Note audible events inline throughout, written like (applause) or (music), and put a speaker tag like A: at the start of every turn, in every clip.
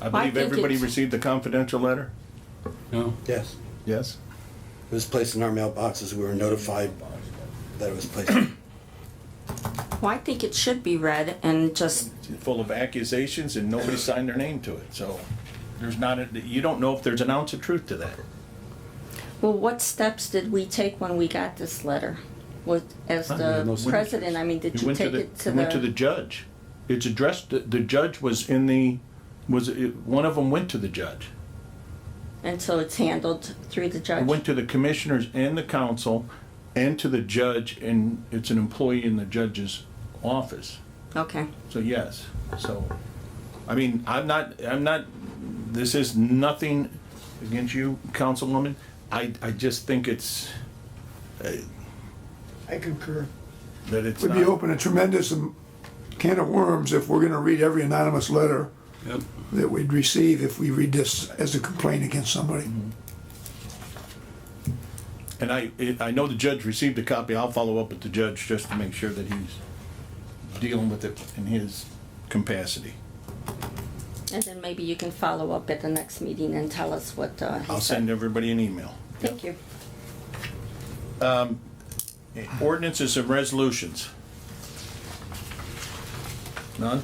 A: I
B: Well, I
A: believe
B: think
A: everybody
B: it's-
A: received the confidential letter?
C: No?
D: Yes.
A: Yes?
D: It was placed in our mailboxes. We were notified that it was placed.
B: Well, I think it should be read and just,
A: Full of accusations and nobody signed their name to it, so there's not, a- you don't know if there's an ounce of truth to that.
B: well, what steps did we take when we got this letter? Was, as
A: Huh, we had no
B: the
A: signatures.
B: president, I mean, did
A: It
B: you
A: went
B: take it to
A: it Went to the
B: the?
A: judge. It's addressed, the- the judge was in the, was, it- one of them went to the judge.
B: And so it's handled through the
A: It went
B: judge?
A: to the commissioners and the council and to the judge, and it's an employee in the judge's office.
B: Okay,
A: So yes, so, I mean, I'm not, I'm not, this is nothing against you, Councilwoman. I, I just think it's, uh,
E: I concur.
A: that it's
E: We'd be
A: not,
E: open a tremendous um, can of worms if we're gonna read every anonymous letter
C: Yep.
E: that we'd receive if we read this as a complaint against somebody.
A: and I, it- I know the judge received a copy. I'll follow up with the judge just to make sure that he's dealing with it in his capacity.
B: and then maybe you can follow up at the next meeting and tell us what, uh, he
A: I'll
B: said.
A: send everybody an email.
B: Thank you.
A: Eh, Ordinances and resolutions. None?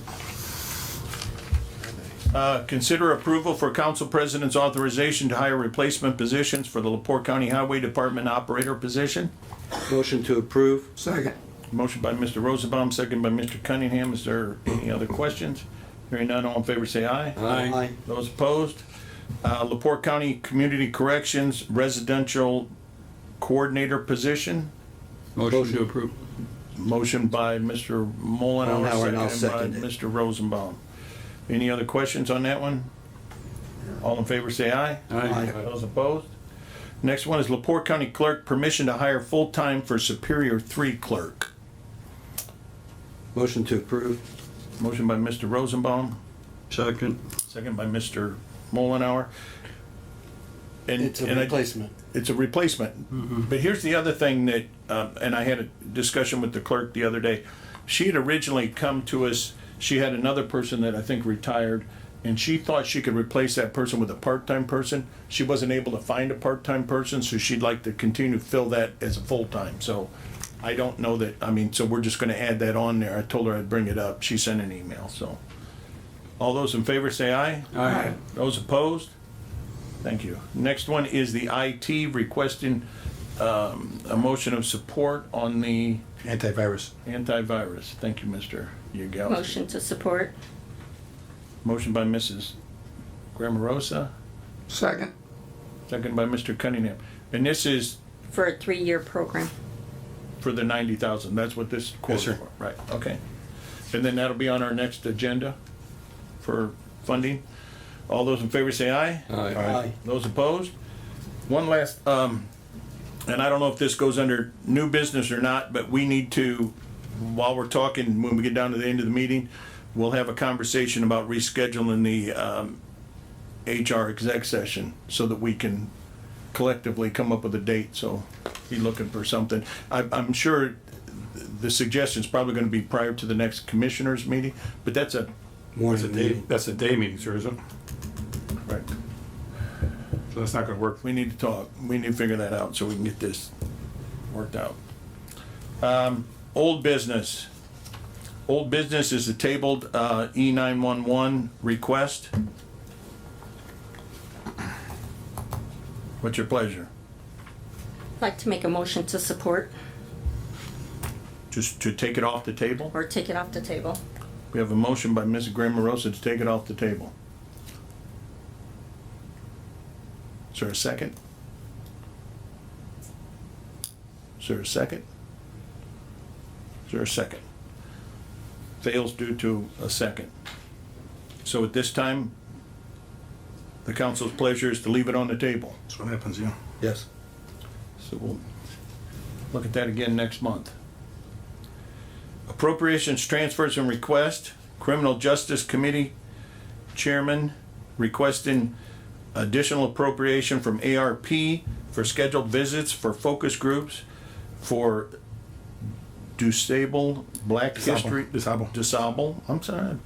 A: Uh, Consider approval for council president's authorization to hire replacement positions for the Lepore County Highway Department operator position.
D: (coughs) Motion to approve.
E: Second.
A: Motion by Mr. Rosenbaum, second by Mr. Cunningham. Is there any other questions? Hearing none, all in favor say aye.
C: Aye.
A: Those opposed? Uh, Lepore County Community Corrections Residential Coordinator position.
C: Motion to approve.
A: Motion by Mr.
D: Mullenhour, and
A: Mullenhour,
D: I'll
A: seconded by
D: second it.
A: Mr. Rosenbaum. Any other questions on that one? All in favor, say aye.
C: Aye.
A: Those opposed? Next one is Lepore County Clerk, permission to hire full-time for Superior Three Clerk.
D: Motion to approve.
A: Motion by Mr. Rosenbaum,
C: Second.
A: second by Mr. Mullenhour. And-
D: It's a
A: and I-
D: replacement.
A: it's a replacement. But here's the other thing that, um, and I had a discussion with the clerk the other day. She had originally come to us, she had another person that I think retired, and she thought she could replace that person with a part-time person. She wasn't able to find a part-time person, so she'd like to continue to fill that as a full-time, so I don't know that, I mean, so we're just gonna add that on there. I told her I'd bring it up. She sent an email, so. All those in favor say aye.
C: Aye.
A: Those opposed? Thank you. Next one is the IT requesting um, a motion of support on the
D: Antivirus.
A: antivirus. Thank you, Mr. Yagowski.
B: Motion to support?
A: Motion by Mrs. Grammarosa,
E: Second.
A: second by Mr. Cunningham. And this is
B: For a three-year program.
A: for the 90,000. That's what this quote is
D: sir.
A: for. Right, okay. And then that'll be on our next agenda for funding. All those in favor say aye.
D: Aye.
A: Those opposed? One last, um, and I don't know if this goes under new business or not, but we need to, while we're talking, when we get down to the end of the meeting, we'll have a conversation about rescheduling the, um, HR exec session so that we can collectively come up with a date, so be looking for something. I, I'm sure the suggestion's probably gonna be prior to the next commissioners meeting, but that's a,
C: That's a
D: Morning
C: day,
D: meeting.
C: that's a day meeting, sir, isn't it? So that's not gonna work.
A: we need to talk. We need to figure that out so we can get this worked out. Um, old business. Old business is the tabled, uh, E nine one one request. What's your pleasure?
B: I'd Like to make a motion to support
A: Just to take it off the table?
B: or take it off the table?
A: We have a motion by Mrs. Graham Morosa to take it off the table. Is there a second? Is there a second? Is there a second? Fails due to a second. So at this time, the council's pleasure is to leave it on the table.
C: That's what happens, yeah.
D: Yes.
A: So we'll look at that again next month. Appropriations, transfers, and request. Criminal Justice Committee Chairman requesting additional appropriation from ARP for scheduled visits for focus groups for DuSable, Black History. DuSable. I'm sorry,